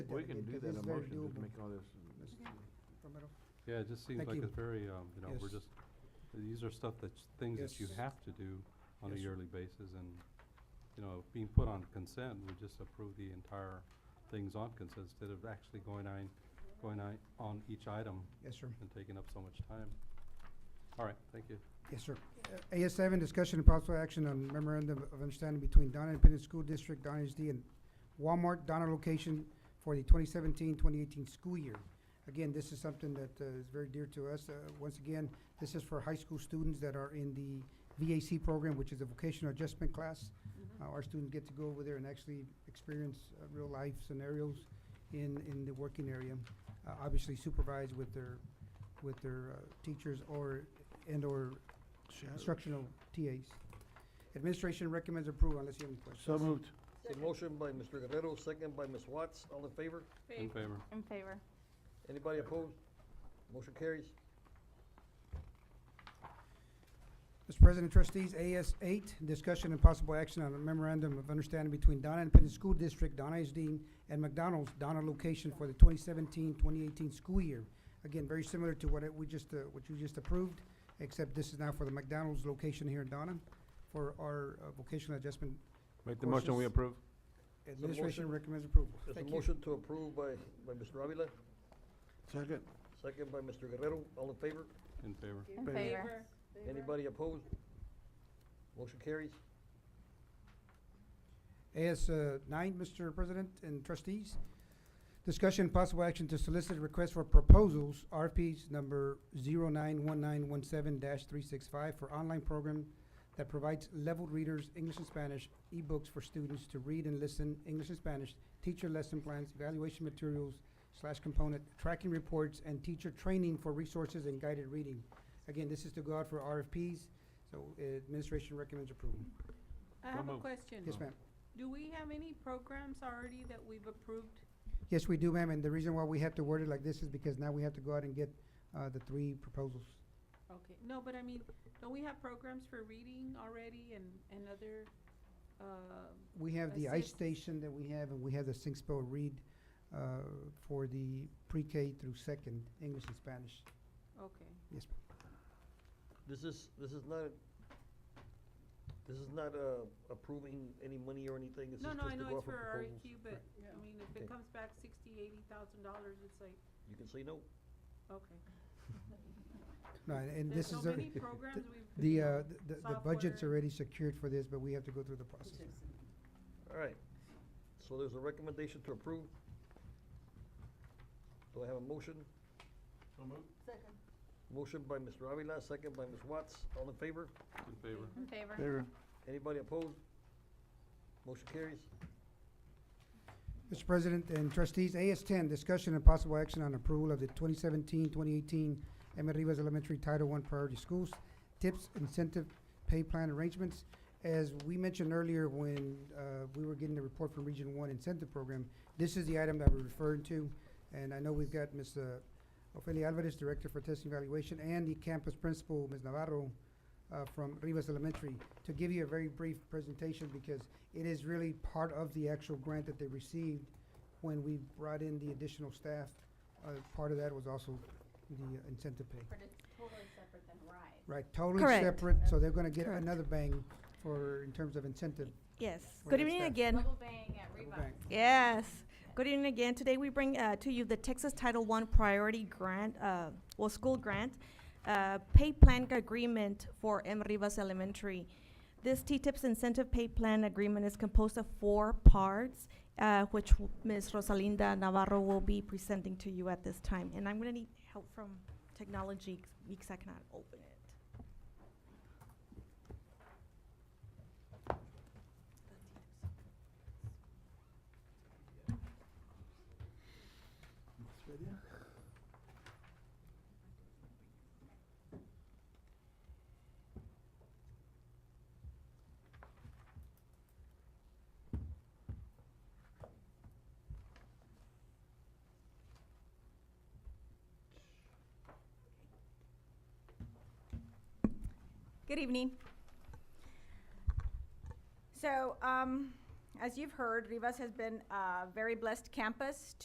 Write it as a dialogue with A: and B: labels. A: We can do
B: It's
A: that in a
B: very
A: motion, just
B: doable,
A: make all this.
B: Mr. Romero.
C: Yeah, it just seems
B: Thank
C: like
B: you.
C: it's very, um, you know, we're
B: Yes.
C: just, these are stuff that's, things that you
B: Yes.
C: have to do on a
B: Yes.
C: yearly basis and, you know, being put on consent, we just approve the entire things on consent instead of actually going on, going on, on each item
B: Yes, sir.
C: and taking up so much time. All right, thank you.
B: Yes, sir. Uh, AS seven, discussion and possible action on memorandum of understanding between Donna Independent School District, Donna HD, and Walmart Donna location for the 2017-2018 school year. Again, this is something that uh, is very dear to us. Uh, once again, this is for high school students that are in the VAC program, which is a vocational adjustment class. Uh, our students get to go over there and actually experience uh, real life scenarios in, in the working area. Uh, obviously supervised with their, with their, uh, teachers or, and or instructional TAs. Administration recommends approval unless you have any questions.
A: So moved.
D: The motion by Mr. Guerrero, second by Ms. Watts, all in favor?
C: In favor.
E: In favor.
D: Anybody opposed? Motion carries.
B: Mr. President, trustees, AS eight, discussion and possible action on a memorandum of understanding between Donna Independent School District, Donna HD, and McDonald's Donna location for the 2017-2018 school year. Again, very similar to what it- we just, uh, what you just approved, except this is now for the McDonald's location here in Donna for our uh, vocational adjustment.
A: Make the motion, we
B: Courses.
A: approve.
B: Administration
D: motion.
B: recommends approval.
D: There's
B: Thank
D: a
B: you.
D: motion to approve by, by Mr. Avila,
A: Second.
D: second by Mr. Guerrero, all in favor?
C: In favor.
E: In
A: Favor.
E: favor.
D: Anybody opposed? Motion carries.
B: AS uh, nine, Mr. President and trustees. Discussion and possible action to solicit requests for proposals, RPs number 91917 three six five for online program that provides leveled readers, English and Spanish, ebooks for students to read and listen, English and Spanish, teacher lesson plans, evaluation materials slash component, tracking reports, and teacher training for resources and guided reading. Again, this is to go out for RFPs, so uh, administration recommends approval.
F: I
C: So
F: have a
C: moved.
F: question.
B: Yes, ma'am.
F: Do we have any programs already that we've approved?
B: Yes, we do, ma'am, and the reason why we have to word it like this is because now we have to go out and get, uh, the three proposals.
F: Okay, no, but I mean, don't we have programs for reading already and, and other, uh,
B: We have the ice
F: Assist.
B: station that we have, and we have the Sing Spell Read, uh, for the pre-K through second, English and Spanish.
F: okay.
B: Yes,
D: This is, this is not, this is not, uh, approving any money or anything, this is
F: No,
D: just
F: no, I
D: to
F: know
D: go
F: it's
D: off of
F: for E
D: proposals.
F: REQ, but, I mean, if
D: Okay.
F: it comes back sixty, eighty thousand dollars, it's like,
D: You can say no.
F: okay.
B: ma'am. No, and- and this
F: There's so
B: is, a-
F: many programs we've.
B: the,
F: you
B: uh,
F: know,
B: th- the, the budget's
F: software.
B: already secured for this, but we have to go through the process.
D: All right, so there's a recommendation to approve. Do I have a motion? Motion by Mr. Avila, second by Ms. Watts, all in favor?
C: In favor.
E: In favor.
A: Favor.
D: Anybody opposed? Motion carries.
B: Mr. President and trustees, AS ten, discussion and possible action on approval of the 2017-2018 Emmett Rivas Elementary Title I Priority Schools Tips Incentive Pay Plan Arrangements. As we mentioned earlier, when, uh, we were getting the report from Region One Incentive Program, this is the item that we're referring to. And I know we've got Ms. uh, Ofelia Alvarez, Director for Testing Evaluation, and the campus principal, Ms. Navarro, uh, from Rivas Elementary, to give you a very brief presentation because it is really part of the actual grant that they received when we brought in the additional staff. Uh, part of that was also the uh, incentive pay.
E: But it's totally separate than RISE.
B: Right, totally
G: Correct.
B: separate, so they're gonna get
G: Correct.
B: another bang for, in terms of incentive.
G: Yes.
B: Where
G: Good
B: is
G: evening
B: that?
G: again.
E: Double bang at
B: Double
E: Reebok.
B: bang.
G: Yes. Good evening again. Today we bring uh, to you the Texas Title I Priority Grant, uh, well, school grant, uh, pay plan agreement for M. Rivas Elementary. This T-TIPS incentive pay plan agreement is composed of four parts, uh, which w- Ms. Rosalinda Navarro will be presenting to you at this time. And I'm going to need help from technology because I cannot open it.
H: Good evening. So, um, as you've heard, Rivas has been a very blessed campus